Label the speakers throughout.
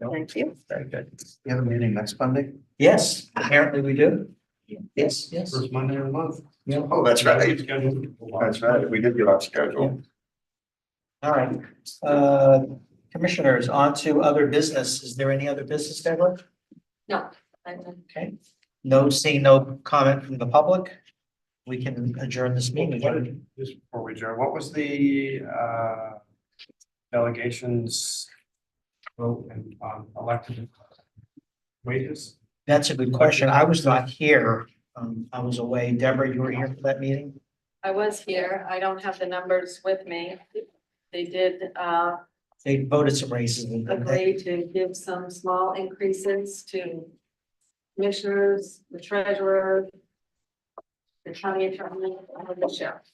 Speaker 1: Thank you.
Speaker 2: Very good.
Speaker 3: We have a meeting next Monday,
Speaker 2: Yes, apparently we do. Yes, yes.
Speaker 4: First Monday of the month.
Speaker 2: Yeah.
Speaker 3: Oh, that's right.
Speaker 4: That's
Speaker 3: That's right, we did get off schedule.
Speaker 2: All right. Uh, Commissioners, on to other business. Is there any other business, Deborah?
Speaker 1: No. I- I-
Speaker 2: Okay. No, seeing no comment from the public. We can adjourn this
Speaker 4: What
Speaker 2: meeting.
Speaker 4: did- Just before we adjourn, what was the uh delegations vote and um elected wages?
Speaker 2: That's a good question. I was not here. Um, I was away. Deborah, you were here for that meeting?
Speaker 1: I was here. I don't have the numbers with me. They did uh
Speaker 2: They voted some raises. and-
Speaker 1: agree to give some small increases to commissioners, the treasurer, the county attorney, and the sheriff.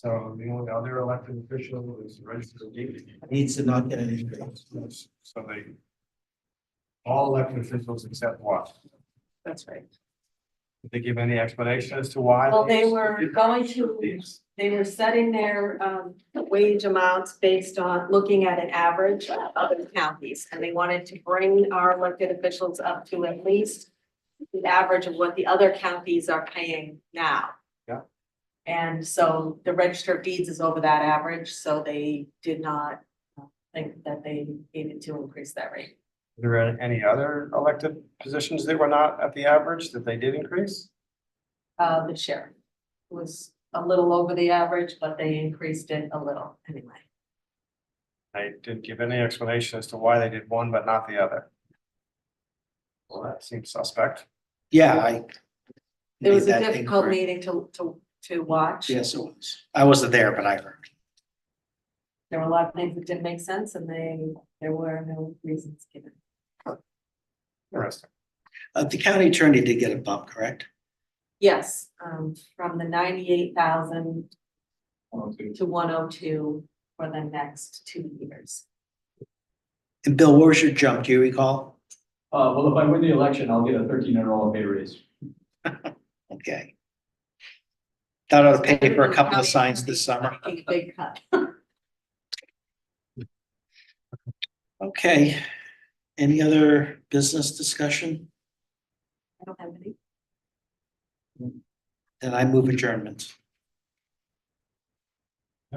Speaker 4: So the only other elected official is registered deed.
Speaker 2: Needs to not get an increase.
Speaker 4: So they all elected officials except what?
Speaker 1: That's right.
Speaker 4: Did they give any explanation as to why?
Speaker 1: Well, they were going to,
Speaker 4: These?
Speaker 1: they were setting their um wage amounts based on looking at an average of other counties. And they wanted to bring our elected officials up to at least the average of what the other counties are paying now.
Speaker 4: Yeah.
Speaker 1: And so the register of deeds is over that average, so they did not think that they needed to increase that rate.
Speaker 4: Were there any other elected positions that were not at the average that they did increase?
Speaker 1: Uh, the sheriff was a little over the average, but they increased it a little anyway.
Speaker 4: They didn't give any explanation as to why they did one but not the other. Well, that seems suspect.
Speaker 5: Yeah, I.
Speaker 1: It was
Speaker 5: made that
Speaker 1: a difficult
Speaker 5: incorrect.
Speaker 1: meeting to, to, to watch.
Speaker 5: Yes, it was. I wasn't there, but I heard.
Speaker 1: There were a lot of things that didn't make sense and they, there were no reasons given.
Speaker 4: Interesting.
Speaker 5: Uh, the county attorney did get a bump, correct?
Speaker 1: Yes, um, from the ninety-eight thousand to one oh two for the next two years.
Speaker 5: And Bill, where was your jump? Do you recall?
Speaker 6: Uh, well, if I win the election, I'll get a thirteen hundred dollar pay raise.
Speaker 5: Okay. Thought I'd pay for a couple of signs this summer.
Speaker 1: Big, Big cut.
Speaker 5: Okay. Any other business discussion?
Speaker 1: I don't have any.
Speaker 5: Then I move adjournment.